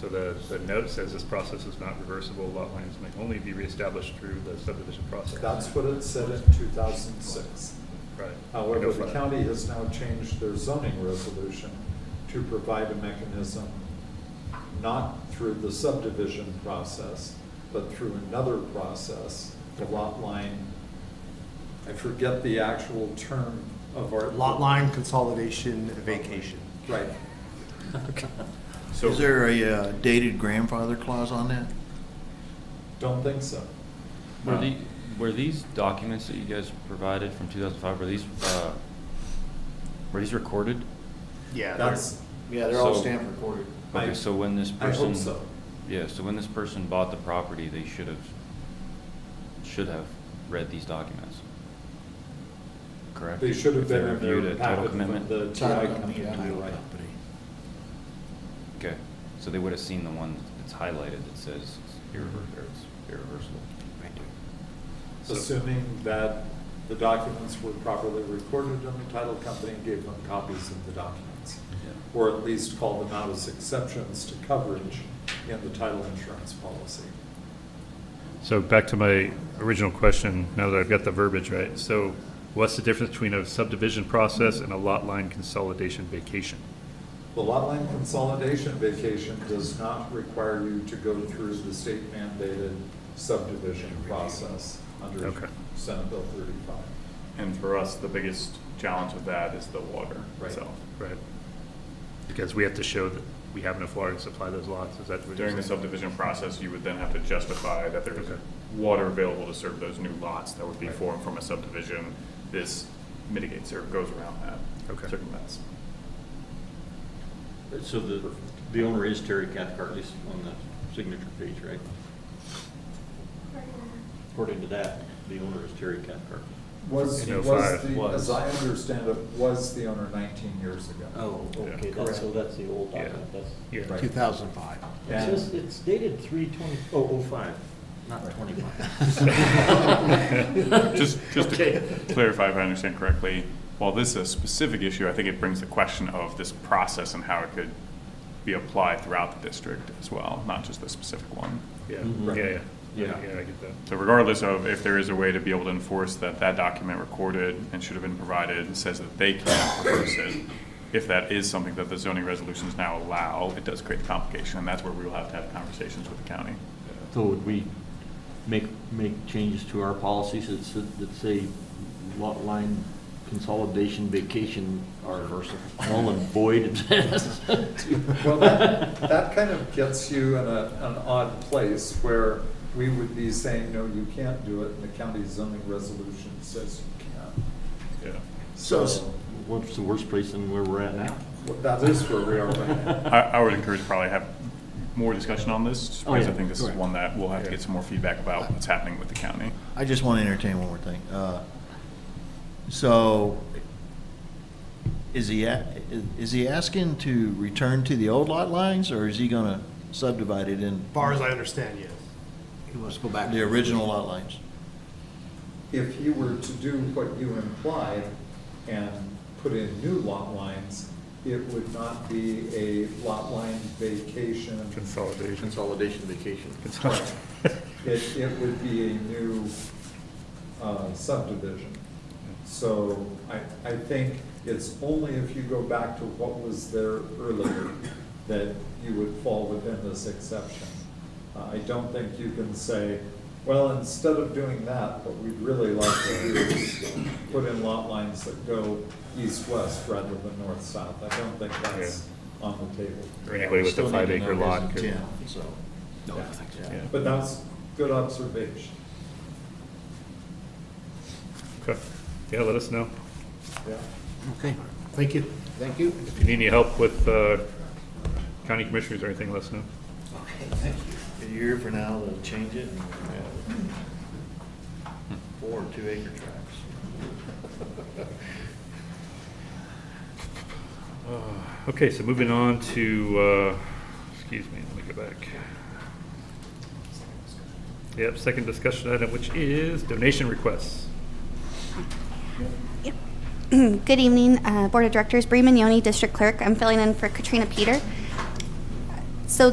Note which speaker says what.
Speaker 1: So the, the note says this process is not reversible, lot lines may only be reestablished through the subdivision process.
Speaker 2: That's what it said in two thousand six.
Speaker 1: Right.
Speaker 2: However,
Speaker 1: No
Speaker 2: the
Speaker 1: further.
Speaker 2: county has now changed their zoning resolution to provide a mechanism not through the subdivision process, but through another process, the lot line. I forget the actual term of our.
Speaker 3: Lot line consolidation vacation.
Speaker 2: Right.
Speaker 1: So,
Speaker 4: Is there a uh, dated grandfather clause on that?
Speaker 2: Don't think so.
Speaker 5: Were
Speaker 4: Wow.
Speaker 5: the, were these documents that you guys provided from two thousand five, were these, uh, were these recorded?
Speaker 3: Yeah. they're-
Speaker 2: That's,
Speaker 3: Yeah, they're all
Speaker 5: So-
Speaker 3: stamped recorded.
Speaker 2: I-
Speaker 5: Okay, so when this
Speaker 2: I
Speaker 5: person.
Speaker 2: hope so.
Speaker 5: Yeah, so when this person bought the property, they should have, should have read these documents. Correct?
Speaker 2: They should have
Speaker 5: If they
Speaker 2: been in
Speaker 5: reviewed
Speaker 2: their
Speaker 5: a title
Speaker 2: packet from
Speaker 5: commitment?
Speaker 2: the TI
Speaker 4: Title company,
Speaker 2: company,
Speaker 4: title
Speaker 2: you're right.
Speaker 4: company.
Speaker 5: Okay, so they would have seen the one that's highlighted that says it's irrever- or it's irreversible.
Speaker 2: assuming that the documents were properly recorded and the title company gave them copies of the documents, or at least called them out as exceptions to coverage in the title insurance policy.
Speaker 1: so back to my original question, now that I've got the verbiage right. So what's the difference between a subdivision process and a lot line consolidation vacation?
Speaker 2: The lot line consolidation vacation does not require you to go through the state mandated subdivision process under
Speaker 1: Okay.
Speaker 2: Senate Bill thirty-five.
Speaker 6: And for us, the biggest challenge of that is the water
Speaker 2: Right.
Speaker 6: itself.
Speaker 1: Right. Because we have to show that we have enough water to supply those lots, is that what you're
Speaker 6: During the
Speaker 1: saying?
Speaker 6: subdivision process, you would then have to justify that there is
Speaker 1: Okay.
Speaker 6: water available to serve those new lots that would be
Speaker 1: Right.
Speaker 6: formed from a subdivision. This mitigates or goes around that.
Speaker 1: Okay.
Speaker 6: Circumvents.
Speaker 7: So the, the owner is Terry Cathcart, at least on the signature page, right? According to that, the owner is Terry Cathcart.
Speaker 2: Was,
Speaker 1: In
Speaker 2: was
Speaker 1: 05.
Speaker 2: the,
Speaker 7: Was.
Speaker 2: as I understand it, was the owner nineteen years ago.
Speaker 1: Oh. okay,
Speaker 2: that's- so
Speaker 7: Oh, that's the old
Speaker 1: Yeah. document,
Speaker 7: that's.
Speaker 1: Yeah.
Speaker 2: Right.
Speaker 3: 2005.
Speaker 2: And-
Speaker 7: it's dated three twenty, oh, oh five, not
Speaker 2: Right.
Speaker 3: twenty-five.
Speaker 6: Just, just to clarify if I understand correctly, while this is a specific issue, I think it brings the question of this process and how it could be applied throughout the district as well, not just the specific one.
Speaker 1: Yeah, Mm-hmm. yeah,
Speaker 7: Mhm.
Speaker 1: yeah.
Speaker 6: Yeah.
Speaker 1: Yeah, I get that.
Speaker 6: So regardless of if there is a way to be able to enforce that that document recorded and should have been provided says that they can't enforce it, if that is something that the zoning resolutions now allow, it does create the complication, and that's where we will have to have conversations with the county.
Speaker 7: So would we make, make changes to our policies that, s- that say lot line consolidation vacation are null and void?
Speaker 2: Well, that, that kind of gets you in a, an odd place where we would be saying, no, you can't do it, and the county zoning resolution says you can.
Speaker 6: Yeah.
Speaker 4: So,
Speaker 7: What's the worst place than where we're at now?
Speaker 2: Well, That is where we are right now.
Speaker 6: I, I would encourage probably have more discussion on this, just
Speaker 7: Oh,
Speaker 6: because I
Speaker 7: yeah,
Speaker 6: think this is
Speaker 7: correct.
Speaker 6: one that we'll have to get some more feedback about what's happening with the county.
Speaker 4: I just want to entertain one more thing. Uh, So, is he, a- is he asking to return to the old lot lines, or is he going to subdivide it in
Speaker 3: Far as I understand, yes.
Speaker 4: He wants to go back. The original lot lines.
Speaker 2: If he were to do what you implied and put in new lot lines, it would not be a lot line vacation.
Speaker 1: Consolidation.
Speaker 7: Consolidation vacation.
Speaker 2: It, it would be a new uh, subdivision. So I, I think it's only if you go back to what was there earlier that you would fall within this exception. Uh, I don't think you can say, well, instead of doing that, what we'd really like to do is put in lot lines that go east-west rather than north-south. I don't think that's on the table.
Speaker 1: Or anybody with a five acre lot could.
Speaker 4: so.
Speaker 2: No, I think
Speaker 4: so.
Speaker 1: Yeah.
Speaker 2: But that's good observation.
Speaker 1: Okay. Yeah, let us know.
Speaker 2: Yeah.
Speaker 3: Okay, thank you.
Speaker 4: Thank you.
Speaker 1: If you need any help with uh, county commissioners or anything, let us know.
Speaker 4: Okay, thank you. A year from now, they'll change it. and we'll have Four and two acre tracts.
Speaker 1: Okay, so moving on to, uh, excuse me, let me go back. Yep, second discussion item, which is donation requests.
Speaker 8: Good evening, uh, Board of Directors, Bree Mignoni, District Clerk. I'm filling in for Katrina Peter. So